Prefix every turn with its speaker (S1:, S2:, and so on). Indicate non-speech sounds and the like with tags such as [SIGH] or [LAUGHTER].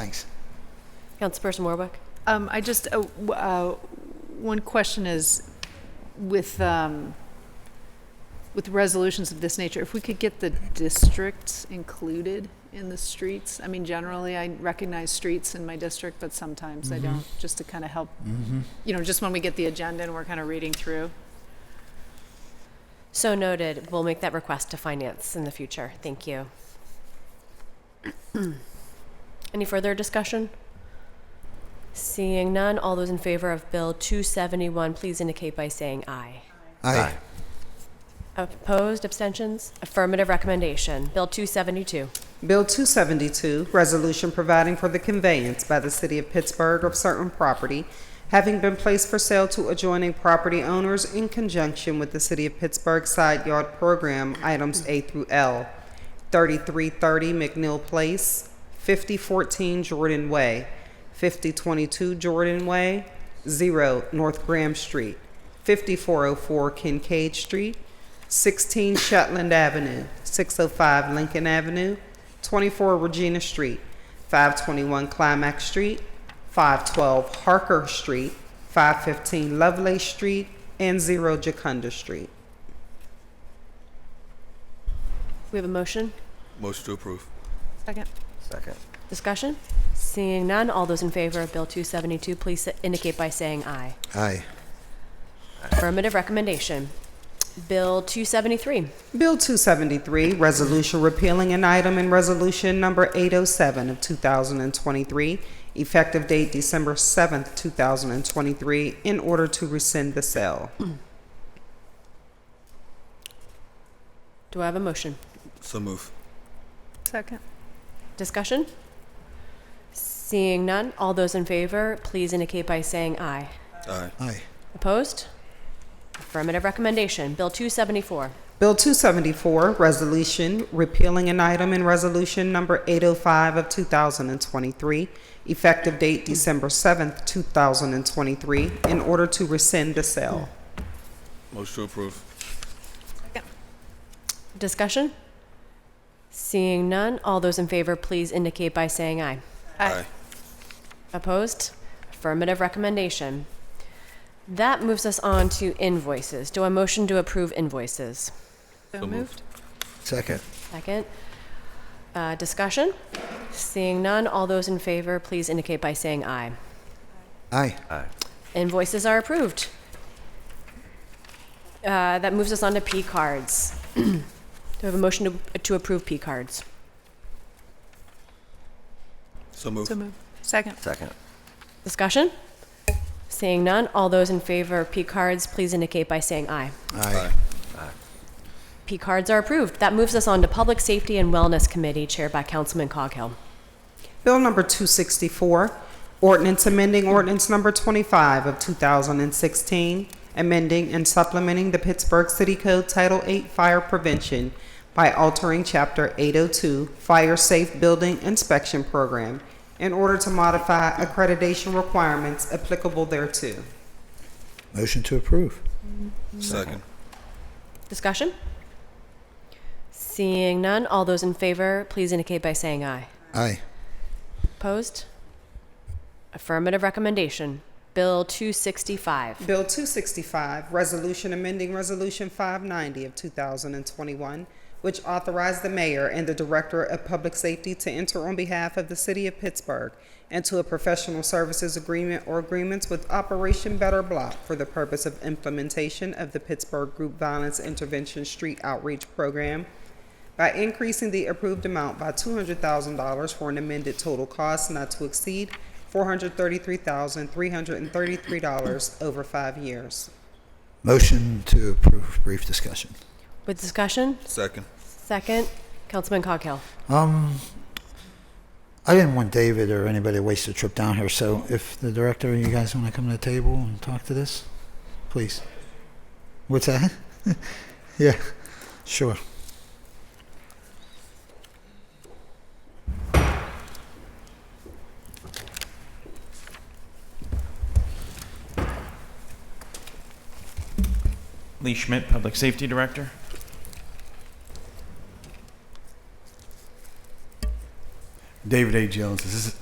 S1: Thanks.
S2: Councilperson Warwick?
S3: Um, I just, uh, w- uh, one question is with, um, with resolutions of this nature, if we could get the districts included in the streets? I mean, generally, I recognize streets in my district, but sometimes I don't, just to kind of help, you know, just when we get the agenda and we're kind of reading through.
S2: So noted. We'll make that request to finance in the future. Thank you. [CLEARS THROAT] Any further discussion? Seeing none, all those in favor of Bill 271, please indicate by saying aye.
S1: Aye.
S2: Opposed, abstentions? Affirmative recommendation. Bill 272.
S4: Bill 272, Resolution Providing for the Conveyance by the City of Pittsburgh of Certain Property Having Been Placed for Sale to Adjoining Property Owners in Conjunction with the City of Pittsburgh Side Yard Program, Items A through L, 3330 McNeil Place, 5014 Jordan Way, 5022 Jordan Way, 0 North Graham Street, 5404 Kincaid Street, 16 Shetland Avenue, 605 Lincoln Avenue, 24 Regina Street, 521 Climax Street, 512 Harker Street, 515 Lovelace Street, and 0 Jacunda Street.
S2: We have a motion?
S5: Motion to approve.
S3: Second.
S1: Second.
S2: Discussion? Seeing none, all those in favor of Bill 272, please indicate by saying aye.
S1: Aye.
S2: Affirmative recommendation. Bill 273.
S4: Bill 273, resolution repealing an item in resolution number 807 of 2023, effective date December 7th, 2023, in order to rescind the sale.
S2: Do I have a motion?
S5: So move.
S3: Second.
S2: Discussion? Seeing none, all those in favor, please indicate by saying aye.
S5: Aye.
S1: Aye.
S2: Opposed? Affirmative recommendation. Bill 274.
S4: Bill 274, resolution repealing an item in resolution number 805 of 2023, effective date December 7th, 2023, in order to rescind the sale.
S5: Motion to approve.
S2: Discussion? Seeing none, all those in favor, please indicate by saying aye.
S3: Aye.
S2: Opposed? Affirmative recommendation. That moves us on to invoices. Do I motion to approve invoices?
S3: So
S5: So
S3: moved.
S5: moved.
S1: Second.
S2: Second. Uh, Discussion? Seeing none, all those in favor, please indicate by saying aye.
S1: Aye.
S2: Invoices are approved. Uh, That moves us on to P cards. [CLEARS THROAT] Do we have a motion to- to approve P cards?
S5: So move.
S3: So moved. Second.
S1: Second.
S2: Discussion? Seeing none, all those in favor of P cards, please indicate by saying aye.
S1: Aye.
S2: P cards are approved. That moves us on to Public Safety and Wellness Committee, chaired by Councilman Coghill.
S4: Bill number 264, ordinance amending ordinance number 25 of 2016, amending and supplementing the Pittsburgh City Code Title 8 Fire Prevention by altering Chapter 802 Fire Safe Building Inspection Program in order to modify accreditation requirements applicable thereto.
S1: Motion to approve.
S5: Second.
S2: Discussion? Seeing none, all those in favor, please indicate by saying aye.
S1: Aye.
S2: Opposed? Affirmative recommendation. Bill 265.
S4: Bill 265, Resolution Amending Resolution 590 of 2021, which authorized the mayor and the director of public safety to enter on behalf of the city of Pittsburgh into a professional services agreement or agreements with Operation Better Block for the purpose of implementation of the Pittsburgh Group Violence Intervention Street Outreach Program by increasing the approved amount by $200,000 for an amended total cost not to exceed $433,333 over five years.
S1: Motion to approve. Brief discussion.
S2: With discussion?
S5: Second.
S2: Second. Councilman Coghill.
S1: Um, I didn't want David or anybody to waste a trip down here, so if the director, you guys want to come to the table and talk to this, please. What's that? [LAUGHS] yeah, sure.
S6: Lee Schmidt, Public Safety Director.
S7: David A. Jones, Ass-